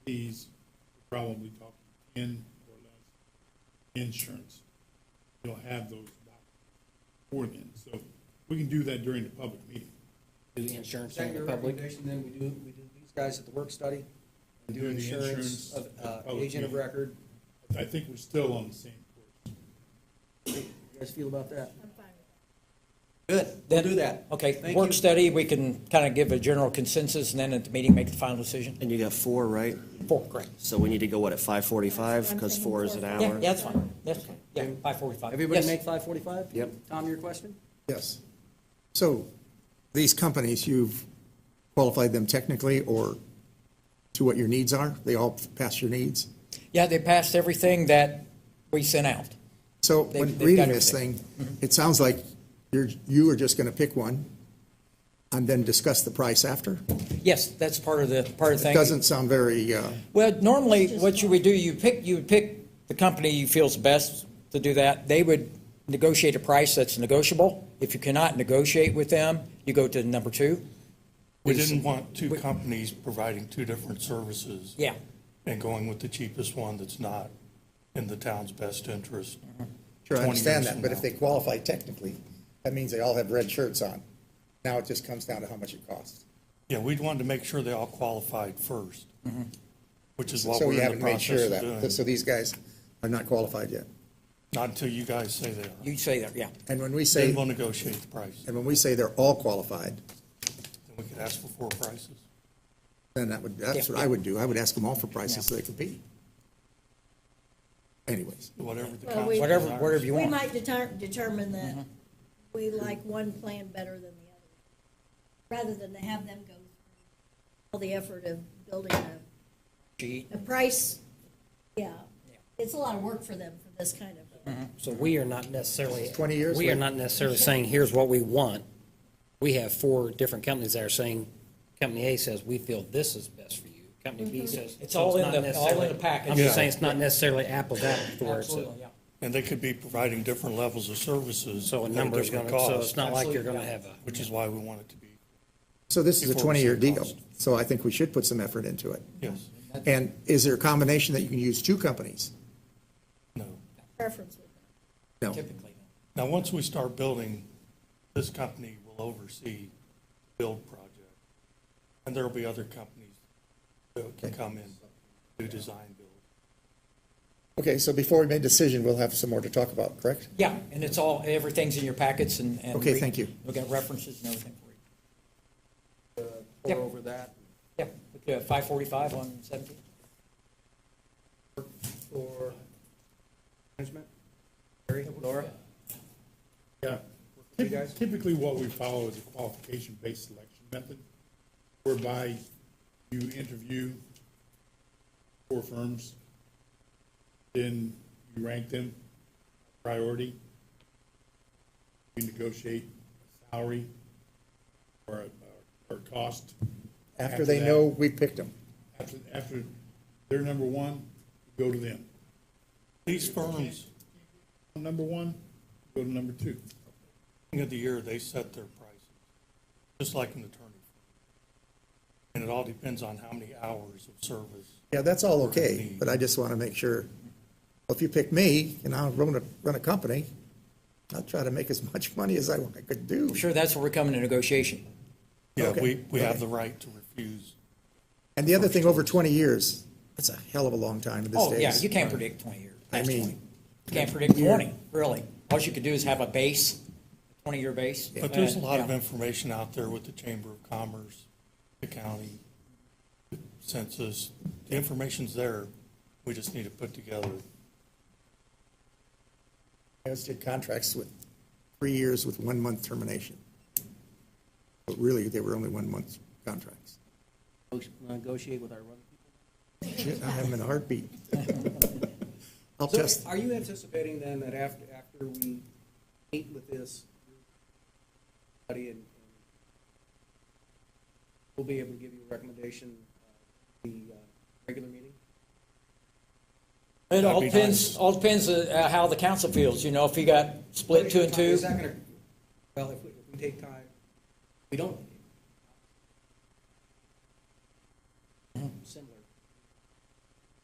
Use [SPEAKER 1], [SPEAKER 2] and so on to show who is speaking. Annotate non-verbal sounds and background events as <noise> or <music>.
[SPEAKER 1] fees, we're probably talking ten or less insurance. You'll have those before then, so we can do that during the public meeting.
[SPEAKER 2] do the insurance
[SPEAKER 3] Is that
[SPEAKER 2] on the
[SPEAKER 3] your
[SPEAKER 2] public.
[SPEAKER 3] recommendation, then we do, we do these guys at the work study? and Do
[SPEAKER 1] Do the
[SPEAKER 3] insurance
[SPEAKER 1] insurance
[SPEAKER 3] of,
[SPEAKER 1] at the
[SPEAKER 3] uh,
[SPEAKER 1] public
[SPEAKER 3] agent of
[SPEAKER 1] meeting.
[SPEAKER 3] record,
[SPEAKER 1] I think we're still on the same course.
[SPEAKER 3] you guys feel about that?
[SPEAKER 4] I'm fine with
[SPEAKER 2] Good.
[SPEAKER 3] We'll do that.
[SPEAKER 2] Okay,
[SPEAKER 3] Thank
[SPEAKER 2] work
[SPEAKER 3] you.
[SPEAKER 2] study, we can kind of give a general consensus and then at the meeting, make the final decision.
[SPEAKER 5] And you got four, right?
[SPEAKER 2] Four, great.
[SPEAKER 5] So we need to go, what, at five forty-five,
[SPEAKER 4] I'm
[SPEAKER 5] because
[SPEAKER 4] thinking
[SPEAKER 5] four is an
[SPEAKER 4] four.
[SPEAKER 5] hour?
[SPEAKER 2] Yeah, yeah, that's fine. That's, fine. yeah, five forty-five.
[SPEAKER 3] Everybody
[SPEAKER 2] Yes.
[SPEAKER 3] make five forty-five?
[SPEAKER 5] Yep.
[SPEAKER 3] Tom, your question?
[SPEAKER 6] Yes. So these companies, you've qualified them technically or to what your needs are? They all pass your needs?
[SPEAKER 2] Yeah, they passed everything that we sent out.
[SPEAKER 6] So
[SPEAKER 2] They-
[SPEAKER 6] when
[SPEAKER 2] they've
[SPEAKER 6] reading
[SPEAKER 2] got
[SPEAKER 6] this
[SPEAKER 2] everything.
[SPEAKER 6] thing, it sounds like you're, you are just going to pick one and then discuss the price after?
[SPEAKER 2] Yes, that's part of the, part of the
[SPEAKER 6] It
[SPEAKER 2] thing.
[SPEAKER 6] doesn't sound very, uh,
[SPEAKER 2] Well, normally, what you would do, you pick, you would pick the company you feels best to do that. They would negotiate a price that's negotiable. If you cannot negotiate with them, you go to number two.
[SPEAKER 7] We
[SPEAKER 2] Is-
[SPEAKER 7] didn't want two
[SPEAKER 2] we-
[SPEAKER 7] companies providing two different services.
[SPEAKER 2] Yeah.
[SPEAKER 7] And going with the cheapest one that's not in the town's best interest.
[SPEAKER 6] sure, I
[SPEAKER 7] 20
[SPEAKER 6] understand
[SPEAKER 7] years
[SPEAKER 6] that,
[SPEAKER 7] from
[SPEAKER 6] but if
[SPEAKER 7] now.
[SPEAKER 6] they qualify technically, that means they all have red shirts on. Now it just comes down to how much it costs.
[SPEAKER 7] Yeah, we'd wanted to make sure they all qualified first, which is what
[SPEAKER 6] So we
[SPEAKER 7] we're in
[SPEAKER 6] haven't
[SPEAKER 7] the
[SPEAKER 6] made
[SPEAKER 7] process
[SPEAKER 6] sure
[SPEAKER 7] of
[SPEAKER 6] of that, so
[SPEAKER 7] doing.
[SPEAKER 6] these guys are not qualified yet.
[SPEAKER 7] Not until you guys say they are.
[SPEAKER 2] You say that, yeah.
[SPEAKER 6] And when we say.
[SPEAKER 7] Then we'll negotiate the price.
[SPEAKER 6] And when we say they're all qualified,
[SPEAKER 7] Then we could ask for four prices.
[SPEAKER 6] then that would, that's what I would do. I would ask them all for prices so they compete. Anyways,
[SPEAKER 7] Whatever the
[SPEAKER 4] Well,
[SPEAKER 7] council.
[SPEAKER 4] we-
[SPEAKER 2] Whatever,
[SPEAKER 7] desires.
[SPEAKER 2] whatever you
[SPEAKER 4] that. We
[SPEAKER 2] want.
[SPEAKER 4] might deter- determine that we like one plan better than the other, rather than to have them go through all the effort of building a,
[SPEAKER 2] Gee,
[SPEAKER 4] a price, yeah. It's a lot of work for them for this kind of,
[SPEAKER 8] So we are not necessarily.
[SPEAKER 6] 20 years
[SPEAKER 8] We are
[SPEAKER 6] later.
[SPEAKER 8] not necessarily saying, here's what we want. We have four different companies that are saying, company A says, we feel this is best for you. Company B says.
[SPEAKER 2] It's
[SPEAKER 8] so
[SPEAKER 2] all in
[SPEAKER 8] not
[SPEAKER 2] the- all in
[SPEAKER 8] necessarily-
[SPEAKER 2] the package.
[SPEAKER 8] I'm just
[SPEAKER 7] Yeah.
[SPEAKER 8] saying, it's not necessarily apples to apples to where it's.
[SPEAKER 2] Absolutely, yeah.
[SPEAKER 7] And they could be providing different levels of services.
[SPEAKER 8] So a
[SPEAKER 7] at
[SPEAKER 8] number's
[SPEAKER 7] different
[SPEAKER 8] gonna, so
[SPEAKER 7] cost,
[SPEAKER 8] it's not like you're gonna have a.
[SPEAKER 7] Which is why we want it to be,
[SPEAKER 6] so this is a
[SPEAKER 7] Before we
[SPEAKER 6] 20-year
[SPEAKER 7] say
[SPEAKER 6] deal,
[SPEAKER 7] cost.
[SPEAKER 6] so I think we should put some effort into it.
[SPEAKER 7] yes,
[SPEAKER 6] And is there a combination that you can use two companies?
[SPEAKER 7] no.
[SPEAKER 4] preference with them.
[SPEAKER 6] No.
[SPEAKER 2] Typically.
[SPEAKER 7] Now, once we start building, this company will oversee the build project. And there'll be other companies that can come in, do design build.
[SPEAKER 6] Okay, so before we make a decision, we'll have some more to talk about, correct?
[SPEAKER 2] Yeah, and it's all, everything's in your packets and. and
[SPEAKER 6] Okay,
[SPEAKER 2] we-
[SPEAKER 6] thank you.
[SPEAKER 2] We've got references and everything for you.
[SPEAKER 3] Pour
[SPEAKER 2] Yep.
[SPEAKER 3] Uh, over that
[SPEAKER 2] Yeah, five forty-five on seventeen.
[SPEAKER 3] for management? Larry, Laura?
[SPEAKER 1] Yeah.
[SPEAKER 3] You guys?
[SPEAKER 1] Typically, what we follow is a qualification-based selection method whereby you interview four firms, then you rank them priority. You negotiate a salary or a, or a cost.
[SPEAKER 6] After they
[SPEAKER 1] that.
[SPEAKER 6] know we picked them.
[SPEAKER 1] After, after they're number one, go to them.
[SPEAKER 7] These firms,
[SPEAKER 1] Number one, go to number two.
[SPEAKER 7] beginning of the year, they set their prices, just like an attorney. firm. And it all depends on how many hours of service.
[SPEAKER 6] Yeah, that's all okay, but I just want to make sure, well, if you pick me and I'll run a, run a company, I'll try to make as <laughs> much money as I I could do.
[SPEAKER 2] I'm sure that's where we're coming to negotiation.
[SPEAKER 7] Yeah, we,
[SPEAKER 6] Okay,
[SPEAKER 7] we have
[SPEAKER 6] okay.
[SPEAKER 7] the right to refuse.
[SPEAKER 6] And the other thing, over 20 years, that's a hell of a long time in this
[SPEAKER 2] Oh,
[SPEAKER 6] days.
[SPEAKER 2] yeah, you can't predict twenty years.
[SPEAKER 6] I
[SPEAKER 2] That's
[SPEAKER 6] mean-
[SPEAKER 2] 20. You can't predict twenty, really. All you could do is have a base, twenty-year base.
[SPEAKER 7] But there's a
[SPEAKER 2] And-
[SPEAKER 7] lot of
[SPEAKER 2] yeah.
[SPEAKER 7] information out there with the Chamber of Commerce, the county, the census. The information's there. We just need to put together
[SPEAKER 6] I always did contracts with three years with one-month termination. But really, they were only one-month contracts.
[SPEAKER 3] Negotiate with our other people.
[SPEAKER 6] Shit, I have them in a heartbeat. I'll test,
[SPEAKER 3] So are you anticipating then that after, after we meet with this study and and we'll be able to give you a recommendation uh, the uh, regular meeting?
[SPEAKER 2] It all
[SPEAKER 7] That'd be
[SPEAKER 2] depends,
[SPEAKER 7] nice.
[SPEAKER 2] all depends uh, how the council feels, you know, if you got split two and two.
[SPEAKER 3] Is that gonna, well, if we, if we take time, we don't